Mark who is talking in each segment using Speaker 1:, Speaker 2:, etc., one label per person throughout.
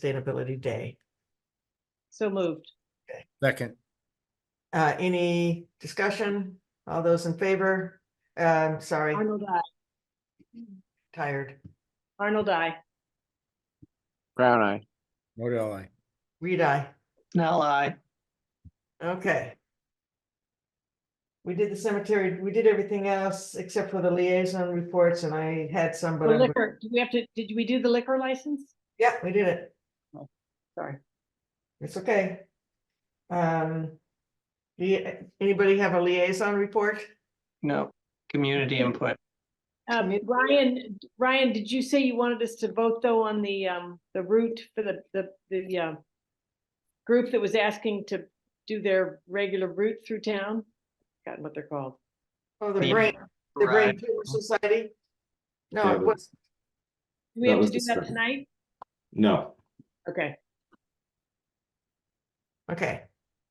Speaker 1: Sustainability Day.
Speaker 2: So moved.
Speaker 3: Second,
Speaker 1: Uh, any discussion? All those in favor? Uh, I'm sorry,
Speaker 2: Arnold, I.
Speaker 1: tired.
Speaker 2: Arnold, I.
Speaker 4: Brown eye.
Speaker 3: Modell, I.
Speaker 1: Reed, I.
Speaker 5: Nell, I.
Speaker 1: Okay. We did the cemetery, we did everything else except for the liaison reports and I had some,
Speaker 2: The
Speaker 1: but, I'm-
Speaker 2: liquor, do we have to, did we do the liquor license?
Speaker 1: yeah, we did it.
Speaker 2: Sorry.
Speaker 1: It's okay. Um. Do you, anybody have a liaison report?
Speaker 5: No, community input.
Speaker 2: Um, Ryan, Ryan, did you say you wanted us to vote though on the, um, the route for the, the, the, uh, group that was asking to do their regular route through town? Forgotten what they're called.
Speaker 1: Oh, the
Speaker 5: Yeah.
Speaker 1: brain, the Brain
Speaker 5: Right.
Speaker 1: Tumor Society? No,
Speaker 6: Yeah,
Speaker 1: it
Speaker 6: but-
Speaker 1: was,
Speaker 2: Do we
Speaker 6: That
Speaker 2: have to
Speaker 6: was
Speaker 2: do that
Speaker 6: discussed.
Speaker 2: tonight?
Speaker 6: No,
Speaker 2: Okay,
Speaker 1: okay.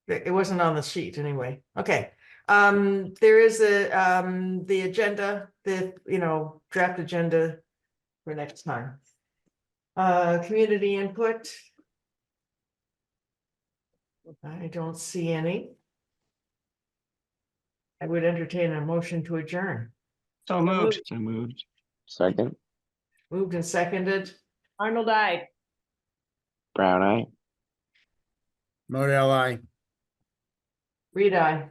Speaker 1: It it wasn't on the sheet anyway. Okay. Um, there is a, um, the agenda, the, you know, draft agenda for next time. Uh, community input. I don't see any. I would entertain a motion to adjourn.
Speaker 5: So moved.
Speaker 4: So moved. Second.
Speaker 1: Moved and seconded.
Speaker 2: Arnold, I.
Speaker 4: Brown eye.
Speaker 3: Modell, I.
Speaker 1: Reed, I.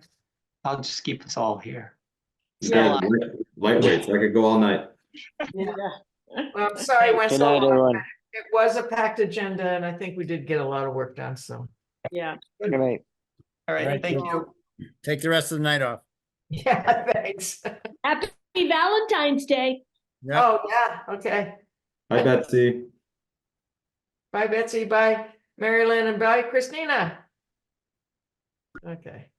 Speaker 5: I'll just keep us all here.
Speaker 6: it's
Speaker 2: Yeah.
Speaker 6: good. Lightweight, so I could go all night.
Speaker 1: Well, I'm sorry, went
Speaker 4: Good
Speaker 1: so
Speaker 4: night,
Speaker 1: long.
Speaker 4: everyone.
Speaker 1: It was a packed agenda and I think we did get a lot of work done, so.
Speaker 2: Yeah.
Speaker 4: Good night.
Speaker 5: All right,
Speaker 3: Right.
Speaker 5: thank you.
Speaker 3: Take the rest of the night off.
Speaker 1: Yeah, thanks.
Speaker 2: Happy Valentine's Day.
Speaker 3: Yeah.
Speaker 1: Oh, yeah, okay.
Speaker 6: Hi, Betsy.
Speaker 1: Bye Betsy, bye Mary Lynn and bye Christina. Okay.